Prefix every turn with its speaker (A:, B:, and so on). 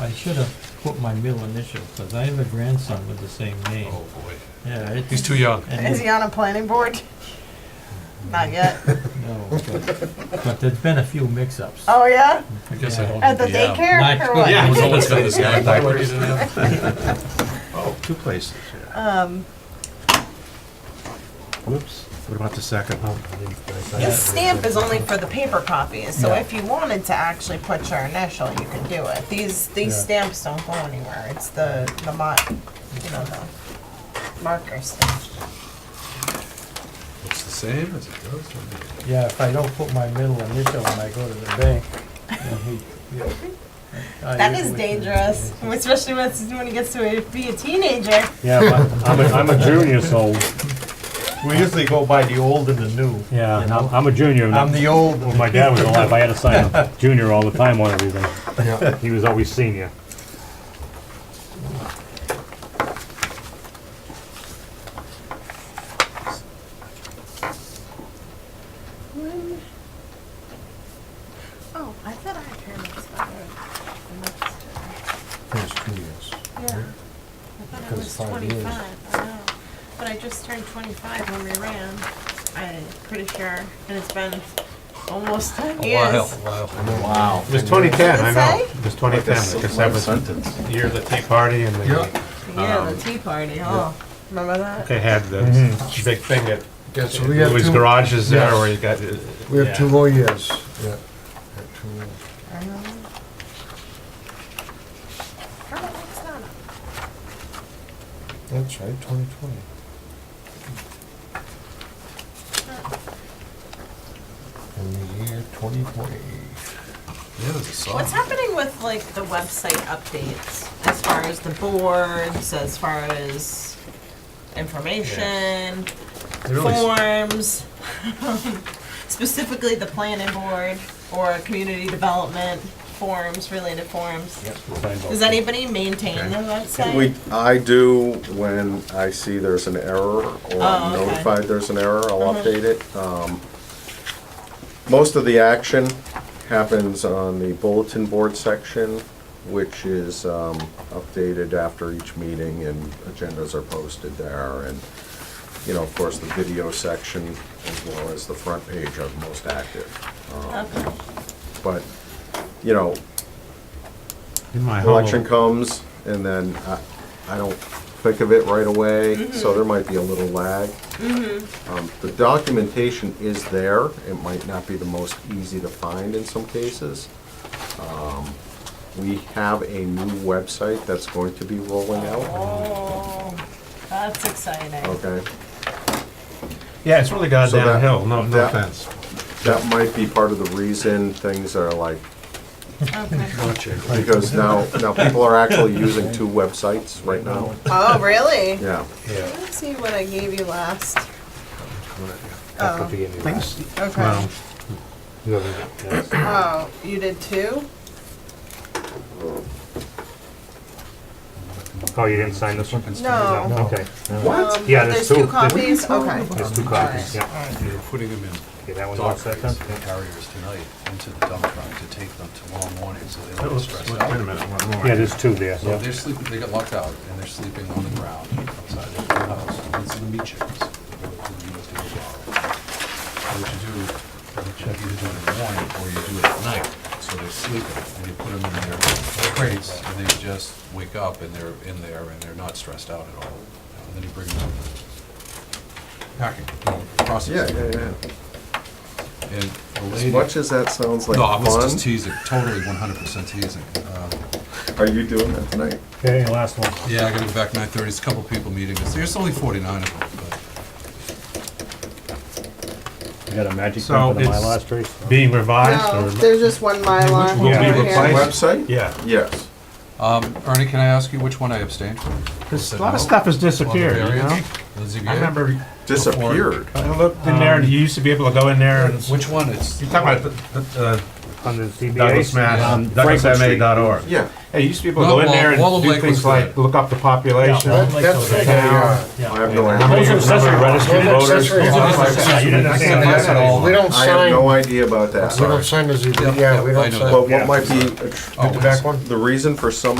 A: I should have put my middle initial, because I have a grandson with the same name.
B: Oh, boy.
A: Yeah, it-
B: He's too young.
A: and
C: Is he on a planning board? Not yet.
A: No, but, but there's been a few mix-ups.
C: Oh, yeah?
B: I guess I
A: Yeah.
B: don't.
C: At the
B: yeah.
C: daycare or what?
B: Yeah, I was almost done this guy. Diapers.
D: Oh, two places, yeah.
C: Um,
D: Whoops, what about the second? Oh, I didn't- I- I-
C: This stamp is only for the paper copies, so
A: Yeah.
C: if you wanted to actually put your initial, you could do it. These, these stamps don't go anywhere, it's the, the mo, you know, the marker stamp.
B: Looks the same as it does. when you-
A: Yeah, if I don't put my middle initial when I go to the bank, then he, yeah. I
C: That is
A: usually-
C: dangerous, especially when when he gets to be a teenager.
E: Yeah, but I'm, a- I'm a junior, so,
A: We usually go by the old and the new.
E: yeah,
A: you
E: I'm,
A: know?
E: I'm a junior.
A: I'm the old.
E: When my dad was alive, I had to sign up junior all the time on everything. He was always senior.
C: Oh, I thought I had pyramids.
D: First two years.
C: Yeah. I thought I was
D: Because five years.
C: twenty-five, I know. But I just turned twenty-five when we ran, I'm pretty sure, and it's been almost ten
B: A while,
C: years.
B: a while.
A: Wow.
D: It was 2010, I
C: Does it
D: know.
C: say?
D: It was 2010, because that was the year of the Tea Party and they,
C: Yeah, the tea party, oh, remember that?
D: they had the big thing at
F: Yeah, so we have
D: Louis
F: two,
D: Garages there
F: yes.
D: where you got, uh,
F: we have two
D: yeah.
F: more years, yeah. Yeah, two more.
C: Kermit looks down.
F: That's right, twenty twenty. In the year twenty twenty.
B: Yeah, there's a song.
C: What's happening with like the website updates, as far as the boards, as far as information,
D: They really s-
C: forms, specifically the planning board or community development forms, related forms? Does anybody maintain the website?
G: We, I do when I see there's an error or I'm
C: Oh, okay. Mm-hmm.
G: notified there's an error, I'll update it. Um, Most of the action happens on the bulletin board section, which is um, updated after each meeting and agendas are posted there. And, you know, of course, the video section as well as the front page are the most active. Um,
C: Okay.
G: But, you know,
D: In my
G: election
D: hollow,
G: comes, and then I, I don't think of it right away, so there might be a little lag. Um, The documentation is there, it might not be the most easy to find in some cases. Um, We have a new website that's going to be rolling out,
C: Oh, that's exciting.
G: okay?
D: yeah, it's really gone
G: So that-
D: downhill, no, no
G: that-
D: offense.
G: That might be part of the reason things are like, Oh.
C: Okay.
G: because now, now people are actually using two websites right now,
C: Oh, really?
G: yeah.
D: Yeah.
C: Let's see what I gave you last. Oh,
E: That could be in the-
D: Things-
C: Okay.
D: well, you know, yes.
C: Oh, you did two?
E: Oh, you didn't sign this one?
C: No.
E: Okay.
C: What?
E: Yeah,
C: There's
E: there's two.
C: two copies? Okay.
E: There's two copies, yeah.
B: You're putting them in
E: Okay, that one's all
B: dog
E: set
B: crates
E: then?
B: and carriers tonight into the dump truck to take them tomorrow morning, so they
D: That
B: don't get
D: was-
B: stressed
D: Wait
B: out.
D: a minute, one more.
E: Yeah, there's two there,
B: So
E: yeah.
B: they're sleeping, they got locked out, and they're sleeping on the ground outside of their house. It's the meat chickens. They go to the USDA bar. And What you do, you check either do it in the morning or you do it at night, so they're sleeping, and you put them in their crates, and they just wake up, and they're in there, and they're not stressed out at all. And then you bring them out. Packing, you know,
G: Yeah,
B: processing.
G: yeah, yeah.
B: And the
G: As
B: lady.
G: much as that sounds like
B: No, I was just
G: fun,
B: teasing, totally one hundred percent teasing. Um,
G: are you doing that tonight?
E: Okay, and last one.
B: Yeah, I gotta go back nine thirty, it's a couple people meeting us, there's only forty-nine of them, but.
E: You got a magic
D: So
E: pen for the
D: it's-
E: Mylar, Trace?
D: Being revised or?
C: there's just one Mylar.
D: Will be replaced?
G: Website?
D: Yeah.
G: Yes.
B: Um, Ernie, can I ask you which one I abstained from?
D: There's A
B: Said
D: lot
B: no.
D: of stuff has
B: Well, the
D: disappeared, you
B: variance,
D: know?
B: the ZBA.
D: I remember
G: Disappeared.
D: I looked in there, and you used to be able to go in there and, you're
B: Which one is,
D: Um, talking about the- uh, the
E: Under the CBA?
D: Douglas Mass,
E: Um, Franklin Street.
D: douglasma.org.
G: Yeah.
D: Hey, you used to be able to
B: No,
D: go in
B: Wall-
D: there
B: Wall of
D: and do
B: Lake was
D: things like,
B: there.
D: look up the population.
E: Yeah.
D: How
F: That- That's
D: the
F: what
D: town.
F: they are.
G: I have no
D: many-
E: Those are
G: idea.
E: accessory registered
F: They're
E: voters.
F: accessory
E: Yeah,
F: voters.
E: you didn't understand
B: Yeah.
E: that at all.
F: We don't
G: I have no
F: sign,
G: idea about that.
F: we don't sign the ZBA,
B: Yep,
F: yeah, we
B: yep, I know
F: don't sign.
G: But
E: Yeah.
G: what might be, a tr-
B: Oh,
F: Get the back one?
G: the reason for some